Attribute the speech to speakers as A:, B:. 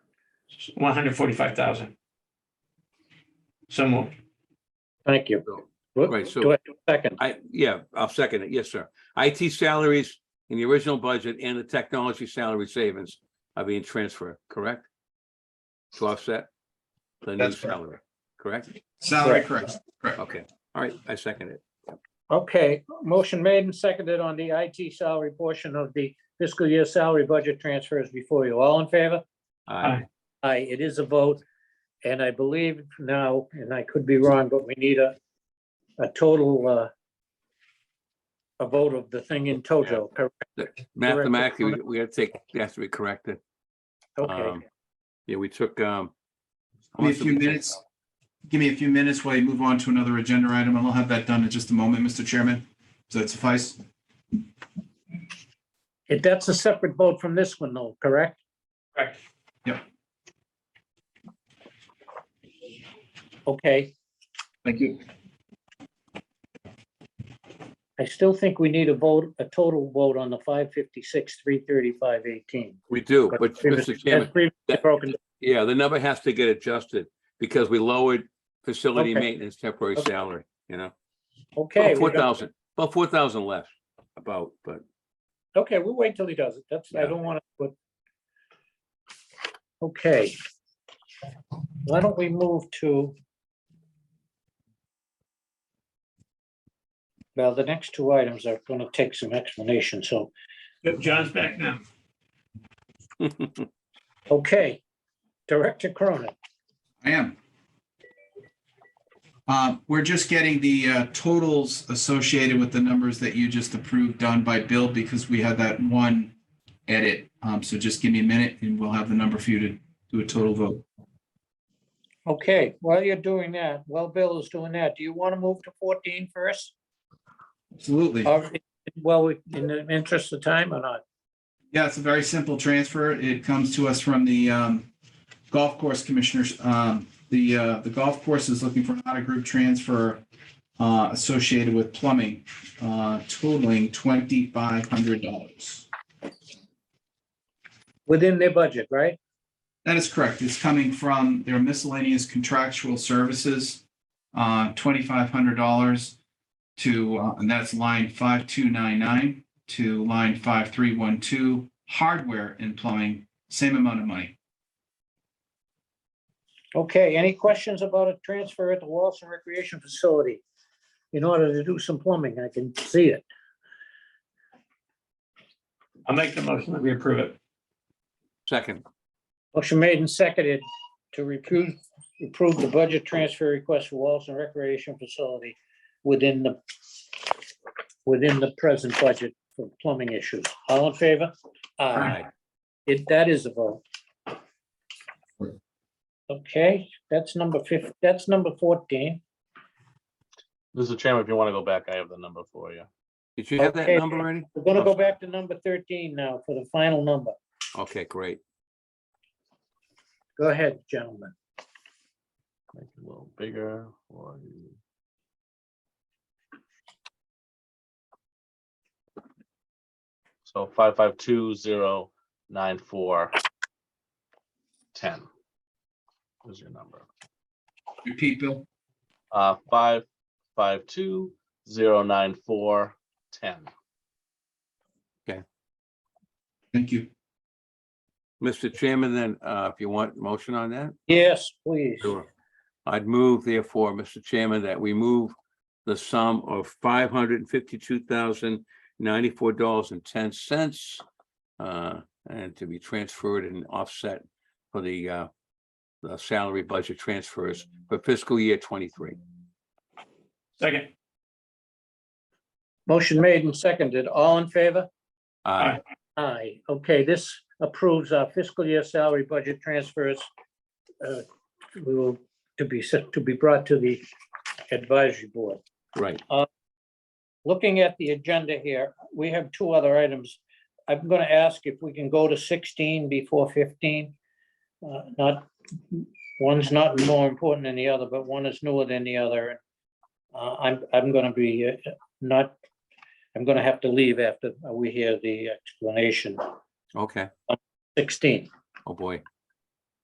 A: one hundred forty-five thousand. So moved.
B: Thank you. Whoop,
C: Right, so-
B: Do I have a second?
C: I, yeah, I'll second it. Yes, sir. IT salaries in the original budget and the technology salary savings are being transferred, correct? To offset the new
D: That's correct.
C: salary, correct?
D: Salary
B: Correct.
D: correct.
C: Okay, all right, I second it.
B: Okay, motion made and seconded on the IT salary portion of the fiscal year salary budget transfers before you. All in favor?
C: Aye.
B: Aye, it is a vote. And I believe now, and I could be wrong, but we need a, a total, uh, a vote of the thing in toto, correct?
C: That- Mathematically, we- we gotta take, that has to be corrected.
B: Okay,
C: Um, Yeah, we took, um. how
D: Give me a
C: much did we
D: few
C: take
D: minutes. Give me a few minutes while you move on to another agenda item, and I'll have that done in just a moment, Mr. Chairman. Does that suffice?
B: If that's a separate vote from this one though, correct?
A: Correct.
B: Okay,
D: Thank you.
B: I still think we need a vote, a total vote on the five fifty-six, three thirty-five, eighteen.
C: We do, but Mr. Chairman, that-
B: Broken,
C: Yeah, the number has to get adjusted because we lowered facility
B: Okay.
C: maintenance temporary
B: Okay.
C: salary, you know?
B: okay. we're
C: About Oh, four
B: done.
C: thousand, about four thousand less about, but
B: Okay, we'll wait till he does it. That's, I
C: Yeah.
B: don't want to put. Okay. Why don't we move to? Well, the next two items are going to take some explanation, so,
A: John's back now.
B: okay. Director Cronin,
D: I am. Uh, We're just getting the uh, totals associated with the numbers that you just approved done by Bill because we had that one edit. Um, So just give me a minute and we'll have the number for you to do a total vote.
B: okay, while you're doing that, while Bill is doing that, do you want to move to 14 first?
D: Absolutely.
B: Or, well, we- in the interest of time or not?
D: Yeah, it's a very simple transfer. It comes to us from the um, golf course commissioners. Um, The, uh, the golf course is looking for not a group transfer uh, associated with plumbing uh, totaling $2,500.
B: Within their budget, right?
D: That is correct. It's coming from their miscellaneous contractual services, uh, $2,500 to, uh, and that's line 5299 to line 5312, hardware and plumbing, same amount of money.
B: Okay, any questions about a transfer at the Walson Recreation Facility? In order to do some plumbing, I can see it.
A: I'll make the motion that we approve it.
C: second,
B: Motion made and seconded to approve, approve the budget transfer request for Walson Recreation Facility within the, within the present budget for plumbing issues. All in favor?
C: aye.
B: It, that is a vote. Okay, that's number fif, that's number fourteen.
E: Mr. Chairman, if you want to go back, I have the number for you.
C: Did you have that
B: Okay.
C: number already?
B: We're gonna go back to number thirteen now for the final number.
C: Okay, great.
B: Go ahead, gentlemen.
E: Make it a little bigger. for you. So five five two zero nine four ten is your number.
D: Repeat, Bill.
E: Uh, five five two zero nine four ten.
D: Thank you.
C: Mr. Chairman, then, uh, if you want motion on that?
B: Yes, please.
C: Sure. I'd move therefore, Mr. Chairman, that we move the sum of five hundred and fifty-two thousand ninety-four dollars and ten cents uh, and to be transferred and offset for the uh, the salary budget transfers for fiscal year twenty-three.
A: Second.
B: Motion made and seconded. All in favor?
C: Uh,
B: Aye. Okay, this approves our fiscal year salary budget transfers. uh, We will, to be, sent- to be brought to the advisory board.
C: right,
B: Looking at the agenda here, we have two other items. I'm going to ask if we can go to 16 before 15. Uh, Not, one's not more important than the other, but one is newer than the other. Uh, I'm, I'm going to be uh, not, I'm going to have to leave after we hear the explanation.
C: okay,
B: 16.
C: oh boy,